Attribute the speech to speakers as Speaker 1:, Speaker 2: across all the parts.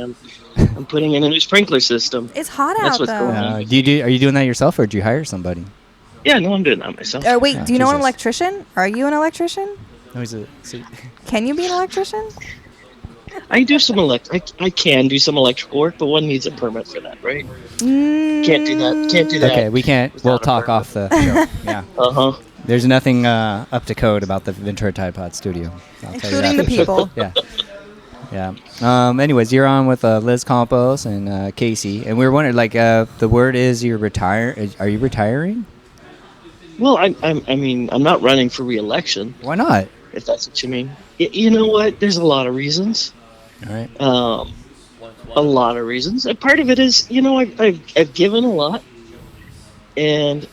Speaker 1: am. I'm putting in a new sprinkler system.
Speaker 2: It's hot
Speaker 1: That's
Speaker 2: out
Speaker 1: what's
Speaker 2: though.
Speaker 1: going on.
Speaker 3: Uh, do you do? Are you doing that yourself, or do you hire somebody?
Speaker 1: Yeah, no, I'm doing that myself.
Speaker 2: Oh wait,
Speaker 3: Yeah,
Speaker 2: do you know an
Speaker 3: Jesus.
Speaker 2: electrician? Are you an electrician?
Speaker 3: No, he's a.
Speaker 2: Can you be an electrician?
Speaker 1: I do some elect. I, I can do some electrical work, but one needs a permit for that, right? Can't do that. Can't do that.
Speaker 3: Okay, we can't.
Speaker 1: Without
Speaker 3: We'll
Speaker 1: a
Speaker 3: talk
Speaker 1: permit.
Speaker 3: off the show. yeah,
Speaker 1: Uh huh.
Speaker 3: there's nothing uh, up to code about the Ventura Tide Pod Studio. I'll tell you
Speaker 2: Including the
Speaker 3: that.
Speaker 2: people.
Speaker 3: Yeah. Yeah. Um, anyways, you're on with uh, Liz Campos and uh, Casey, and we were wondering, like, uh, the word is you're retire. is- Are you retiring?
Speaker 1: Well, I'm, I'm. I mean, I'm not running for re-election,
Speaker 3: Why not?
Speaker 1: if that's what you mean. Y- you know what? There's a lot of reasons.
Speaker 3: All right.
Speaker 1: Um, a lot of reasons. And part of it is, you know, I've, I've, I've given a lot, and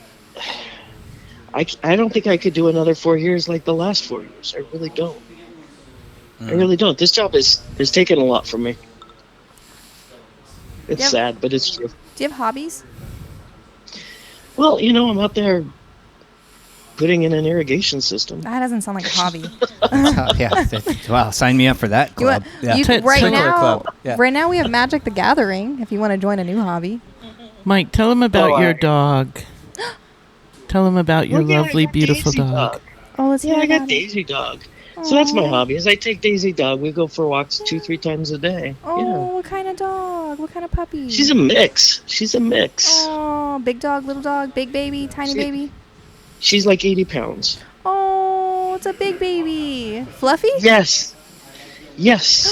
Speaker 1: I, c- I don't think I could do another four years like the last four years. I really don't. I
Speaker 4: Hmm.
Speaker 3: Mm.
Speaker 1: really don't. This job is is taking a lot from me. It's
Speaker 2: Yep.
Speaker 1: sad, but it's true.
Speaker 2: Do you have hobbies?
Speaker 1: Well, you know, I'm out there putting in an irrigation system.
Speaker 2: That doesn't sound like a hobby.
Speaker 3: Uh, yeah. Wow. Sign me up for that
Speaker 2: You
Speaker 3: club.
Speaker 2: want- you-
Speaker 3: yeah.
Speaker 2: right
Speaker 3: Sprinkler
Speaker 2: now,
Speaker 3: club. Yeah.
Speaker 2: right now we have Magic the Gathering. If you want to join a new hobby,
Speaker 4: Mike, tell him about
Speaker 1: Oh,
Speaker 4: your
Speaker 1: I-
Speaker 4: dog. tell him about your
Speaker 1: Well, yeah, I
Speaker 4: lovely,
Speaker 1: got
Speaker 4: beautiful
Speaker 1: Daisy
Speaker 4: dog.
Speaker 2: oh, let's
Speaker 1: Yeah,
Speaker 2: hear
Speaker 1: I got
Speaker 2: about it.
Speaker 1: Daisy Dog. So that's my
Speaker 2: Aw.
Speaker 1: hobby. Is I take Daisy Dog. We go for walks two, three times a day.
Speaker 2: Oh, what kind of dog? What kind of puppy?
Speaker 1: Yeah. She's a mix. She's a mix.
Speaker 2: oh, big dog, little dog, big baby, tiny
Speaker 1: She-
Speaker 2: baby.
Speaker 1: She's like 80 pounds.
Speaker 2: Oh, it's a big baby. Fluffy?
Speaker 1: Yes. Yes.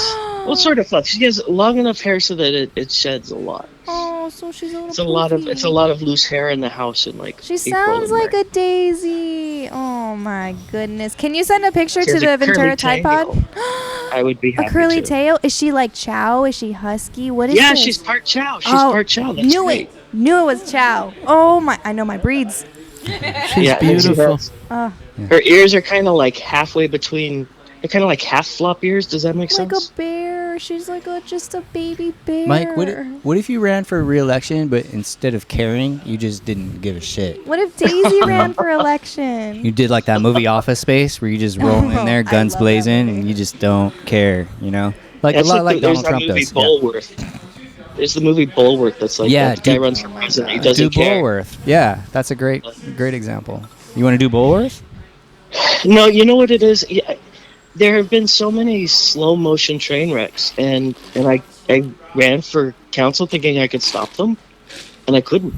Speaker 1: well, sort of fluff. She has long enough hair so that it, it sheds a lot.
Speaker 2: Oh, so she's a little.
Speaker 1: It's a lot of it's a
Speaker 2: poofy.
Speaker 1: lot of loose hair in the house in like.
Speaker 2: She
Speaker 1: April
Speaker 2: sounds
Speaker 1: and
Speaker 2: like
Speaker 1: May.
Speaker 2: a daisy. Oh my goodness! Can you send a picture
Speaker 1: She
Speaker 2: to
Speaker 1: has
Speaker 2: the
Speaker 1: a curly
Speaker 2: Ventura Tide Pod?
Speaker 1: tail. I would be happy
Speaker 2: A curly
Speaker 1: to.
Speaker 2: tail? Is she like Chow? Is she husky? What is
Speaker 1: Yeah,
Speaker 2: this?
Speaker 1: she's part Chow. She's
Speaker 2: Oh,
Speaker 1: part Chow. That's
Speaker 2: Knew
Speaker 1: great.
Speaker 2: it. Knew it was Chow. Oh my! I know my breeds.
Speaker 4: She's
Speaker 1: yeah, and she
Speaker 4: beautiful.
Speaker 1: has-
Speaker 2: Uh,
Speaker 1: her ears are kind of like halfway between. They're kind of like half flop ears. Does that make
Speaker 2: like
Speaker 1: sense?
Speaker 2: a bear. She's like a just a baby bear.
Speaker 3: Mike, what, i- what if you ran for re-election, but instead of caring, you just didn't give a shit?
Speaker 2: What if Daisy ran for election?
Speaker 3: You did like that movie Office Space, where you just roll in
Speaker 2: I
Speaker 3: there, guns
Speaker 2: love that
Speaker 3: blazing,
Speaker 2: movie.
Speaker 3: and you just don't care, you know? Like
Speaker 1: That's
Speaker 3: a lot like
Speaker 1: the, there's
Speaker 3: Donald Trump
Speaker 1: that movie
Speaker 3: does. Yeah.
Speaker 1: Bulworth. There's the movie Bulworth that's like
Speaker 3: Yeah,
Speaker 1: that guy
Speaker 3: Duke-
Speaker 1: runs for president. He doesn't
Speaker 3: do
Speaker 1: care.
Speaker 3: Bulworth. Yeah, that's a great, great example. You want to do Bulworth?
Speaker 1: No, you know what it is. Yeah, there have been so many slow motion train wrecks, and and I I ran for council thinking I could stop them, and I couldn't.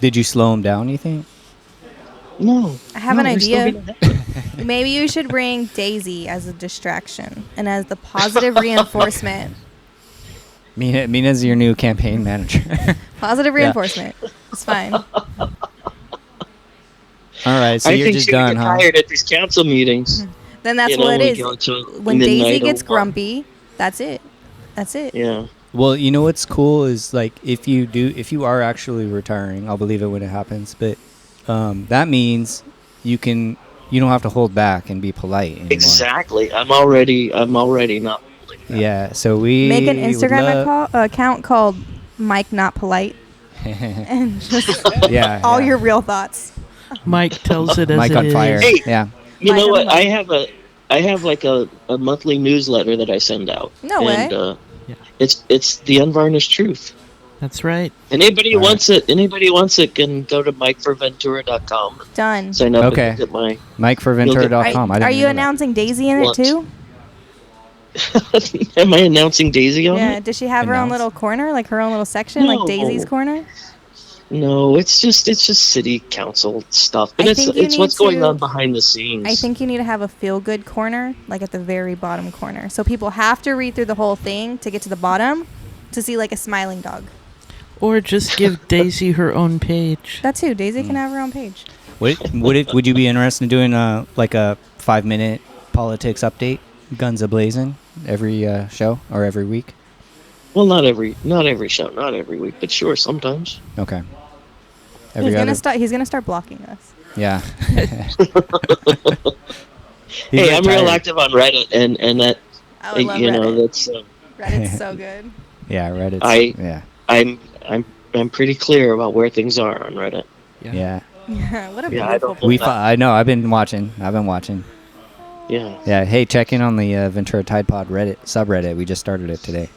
Speaker 3: Did you slow him down? You think?
Speaker 1: No.
Speaker 2: I have
Speaker 1: No,
Speaker 2: an
Speaker 1: they're still
Speaker 2: idea.
Speaker 1: gonna happen.
Speaker 2: Maybe you should bring Daisy as a distraction and as the positive reinforcement.
Speaker 3: Mina, Mina's your new campaign manager.
Speaker 2: Positive
Speaker 3: Yeah.
Speaker 2: reinforcement. It's fine.
Speaker 3: All right, so
Speaker 1: I
Speaker 3: you're
Speaker 1: think
Speaker 3: just
Speaker 1: she would
Speaker 3: done,
Speaker 1: get
Speaker 3: huh?
Speaker 1: tired at these council meetings.
Speaker 2: Then that's
Speaker 1: You know,
Speaker 2: what
Speaker 1: we
Speaker 2: it
Speaker 1: go till
Speaker 2: is. When
Speaker 1: midnight
Speaker 2: Daisy
Speaker 1: or
Speaker 2: gets
Speaker 1: one.
Speaker 2: grumpy, that's it. That's it.
Speaker 1: Yeah.
Speaker 3: Well, you know what's cool is like if you do, if you are actually retiring, I'll believe it when it happens. But um, that means you can, you don't have to hold back and be polite anymore.
Speaker 1: Exactly. I'm already. I'm already not.
Speaker 3: Yeah. So we
Speaker 2: Make an
Speaker 3: would
Speaker 2: Instagram
Speaker 3: love-
Speaker 2: account, account called Mike Not Polite and just
Speaker 3: yeah.
Speaker 2: all
Speaker 3: yeah.
Speaker 2: your real thoughts.
Speaker 4: Mike tells it as
Speaker 3: Mike
Speaker 4: it
Speaker 3: on
Speaker 4: is.
Speaker 3: fire.
Speaker 1: Hey.
Speaker 3: Yeah.
Speaker 1: You
Speaker 2: Like
Speaker 1: know
Speaker 2: a
Speaker 1: what?
Speaker 2: month.
Speaker 1: I have a. I have like a, a monthly newsletter that I send out.
Speaker 2: No
Speaker 1: and,
Speaker 2: way.
Speaker 1: Uh,
Speaker 4: Yeah.
Speaker 1: It's it's the unvarnished truth.
Speaker 4: That's right.
Speaker 1: Anybody who
Speaker 3: All right.
Speaker 1: wants it. Anybody who wants it can go to mikeforventura.com and
Speaker 2: Done.
Speaker 1: sign up.
Speaker 3: Okay.
Speaker 1: And look at my.
Speaker 2: Are,
Speaker 3: MikeForventura.com. I didn't
Speaker 2: are you
Speaker 3: know that.
Speaker 2: announcing Daisy in it
Speaker 1: What?
Speaker 2: too?
Speaker 1: Am I announcing Daisy on
Speaker 2: Yeah.
Speaker 1: it?
Speaker 2: Does she have her own
Speaker 3: Announce?
Speaker 2: little corner, like her own little section, like Daisy's
Speaker 1: No.
Speaker 2: corner?
Speaker 1: No, it's just it's just city council stuff, but
Speaker 2: I
Speaker 1: it's
Speaker 2: think you
Speaker 1: it's what's
Speaker 2: need
Speaker 1: going
Speaker 2: to-
Speaker 1: on behind the scenes.
Speaker 2: I think you need to have a feel good corner, like at the very bottom corner. So people have to read through the whole thing to get to the bottom to see like a smiling dog.
Speaker 4: Or just give Daisy her own page.
Speaker 2: That's who. Daisy
Speaker 3: Hmm.
Speaker 2: can have her own page.
Speaker 3: Would would it would you be interested in doing a like a five minute politics update, guns ablazing, every uh, show or every week?
Speaker 1: Well, not every not every show, not every week, but sure, sometimes.
Speaker 3: Okay. Every
Speaker 2: he's
Speaker 3: other,
Speaker 2: gonna start he's gonna start blocking us.
Speaker 3: yeah.
Speaker 1: hey, I'm real active on Reddit, and and that
Speaker 2: I
Speaker 1: you
Speaker 2: would love
Speaker 1: know
Speaker 2: Reddit.
Speaker 1: that's um,
Speaker 2: Reddit's so good.
Speaker 3: Yeah, Reddit.
Speaker 1: I-
Speaker 3: yeah,
Speaker 1: I'm I'm I'm pretty clear about where things are on Reddit.
Speaker 3: yeah.
Speaker 2: Yeah, what a
Speaker 1: Yeah, I
Speaker 2: beautiful
Speaker 1: don't-
Speaker 3: We.
Speaker 2: place.
Speaker 3: Fi- I know. I've been watching. I've been watching.
Speaker 1: Yeah,
Speaker 3: Yeah. Hey, check in on the uh, Ventura Tide Pod Reddit subreddit. We just started it today.